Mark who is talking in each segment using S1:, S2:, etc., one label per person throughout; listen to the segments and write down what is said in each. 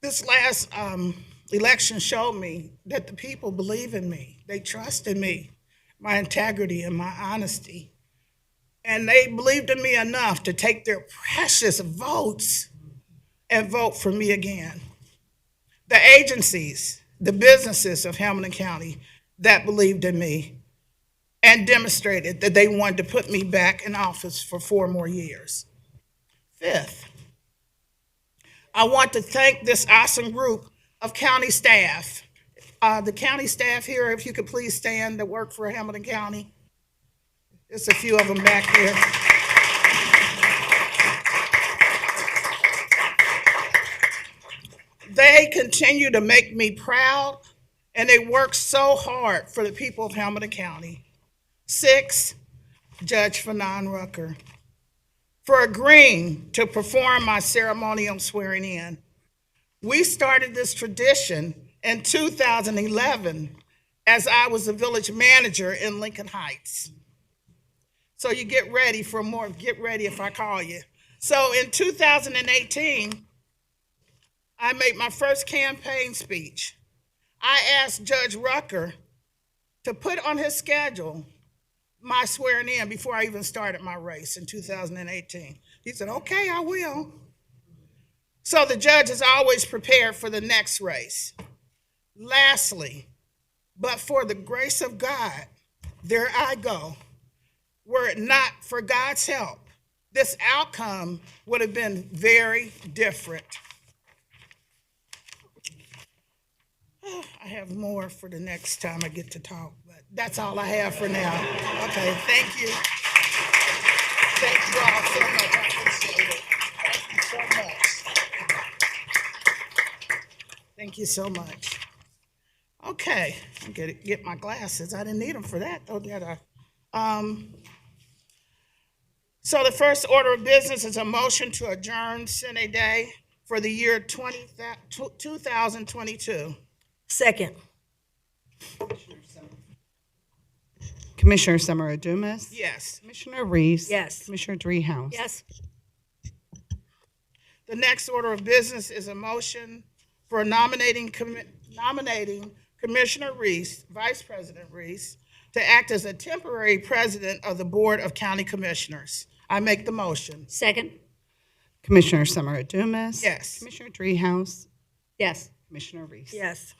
S1: this last um, election showed me that the people believe in me. They trust in me, my integrity and my honesty. And they believed in me enough to take their precious votes and vote for me again. The agencies, the businesses of Hamilton County that believed in me and demonstrated that they wanted to put me back in office for four more years. Fifth, I want to thank this awesome group of county staff. Uh, the county staff here, if you could please stand, that work for Hamilton County. There's a few of them back there. They continue to make me proud, and they work so hard for the people of Hamilton County. Six, Judge Fanon Rucker for agreeing to perform my ceremonial swearing in. We started this tradition in 2011 as I was a village manager in Lincoln Heights. So you get ready for more, get ready if I call you. So in 2018, I made my first campaign speech. I asked Judge Rucker to put on his schedule my swearing in before I even started my race in 2018. He said, okay, I will. So the judge is always prepared for the next race. Lastly, but for the grace of God, there I go. Were it not for God's help, this outcome would have been very different. I have more for the next time I get to talk, but that's all I have for now. Okay, thank you. Thank you all so much. I appreciate it. Thank you so much. Thank you so much. Okay, I'm gonna get my glasses. I didn't need them for that, though, did I? Um, so the first order of business is a motion to adjourn Senate Day for the year 20 2022.
S2: Second.
S3: Commissioner Summer Adumas.
S1: Yes.
S3: Commissioner Reese.
S2: Yes.
S3: Commissioner Dreehouse.
S2: Yes.
S1: The next order of business is a motion for nominating, commi- nominating Commissioner Reese, Vice President Reese, to act as a temporary president of the Board of County Commissioners. I make the motion.
S2: Second.
S3: Commissioner Summer Adumas.
S1: Yes.
S3: Commissioner Dreehouse.
S2: Yes.
S3: Commissioner Reese.
S2: Yes.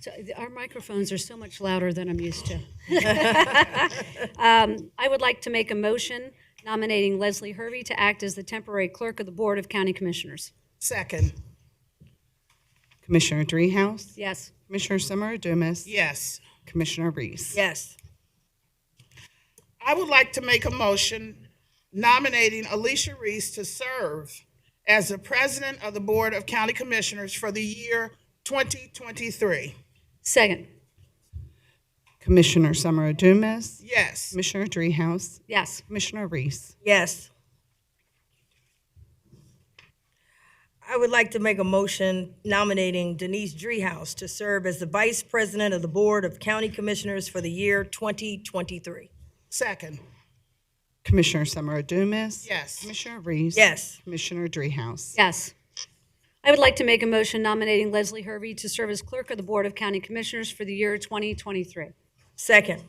S4: So th- our microphones are so much louder than I'm used to. Um, I would like to make a motion nominating Leslie Hervey to act as the temporary clerk of the Board of County Commissioners.
S1: Second,
S3: Commissioner Dreehouse.
S4: Yes.
S3: Commissioner Summer Adumas.
S1: yes.
S3: Commissioner Reese.
S2: Yes.
S1: I would like to make a motion nominating Alicia Reese to serve as the president of the Board of County Commissioners for the year 2023.
S4: Second.
S3: Commissioner Summer Adumas.
S1: Yes.
S3: Commissioner Dreehouse.
S4: Yes.
S3: Commissioner Reese.
S2: Yes.
S5: I would like to make a motion nominating Denise Dreehouse to serve as the Vice President of the Board of County Commissioners for the year 2023.
S1: Second,
S3: Commissioner Summer Adumas.
S1: yes.
S3: Commissioner Reese.
S5: Yes.
S3: Commissioner Dreehouse.
S4: Yes. I would like to make a motion nominating Leslie Hervey to serve as clerk of the Board of County Commissioners for the year 2023.
S5: Second,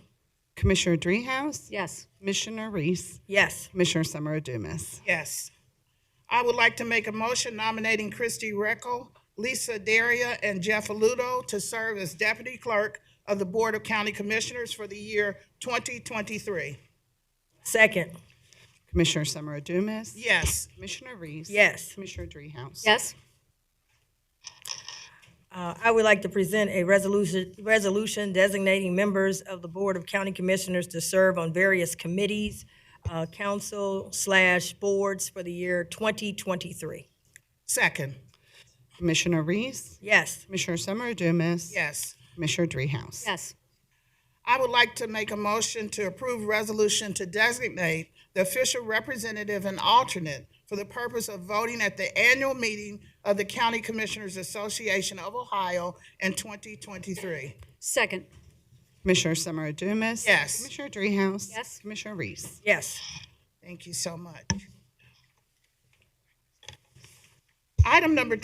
S3: Commissioner Dreehouse.
S4: Yes.
S3: Commissioner Reese.
S5: yes.
S3: Commissioner Summer Adumas.
S1: Yes. I would like to make a motion nominating Christy Reckel, Lisa Daria, and Jeff Aludo to serve as deputy clerk of the Board of County Commissioners for the year 2023.
S5: Second,
S3: Commissioner Summer Adumas.
S1: Yes.
S3: Commissioner Reese.
S5: yes.
S3: Commissioner Dreehouse.
S4: Yes.
S5: Uh, I would like to present a resolution, resolution designating members of the Board of County Commissioners to serve on various committees, uh, council slash boards for the year 2023.
S1: Second,
S3: Commissioner Reese.
S5: Yes.
S3: Commissioner Summer Adumas.
S1: yes.
S3: Commissioner Dreehouse.
S4: Yes.
S1: I would like to make a motion to approve resolution to designate the official representative and alternate for the purpose of voting at the annual meeting of the County Commissioners Association of Ohio in 2023.
S4: Second.
S3: Commissioner Summer Adumas.
S1: Yes.
S3: Commissioner Dreehouse.
S4: Yes.
S3: Commissioner Reese.
S5: Yes.
S1: Thank you so much. Item number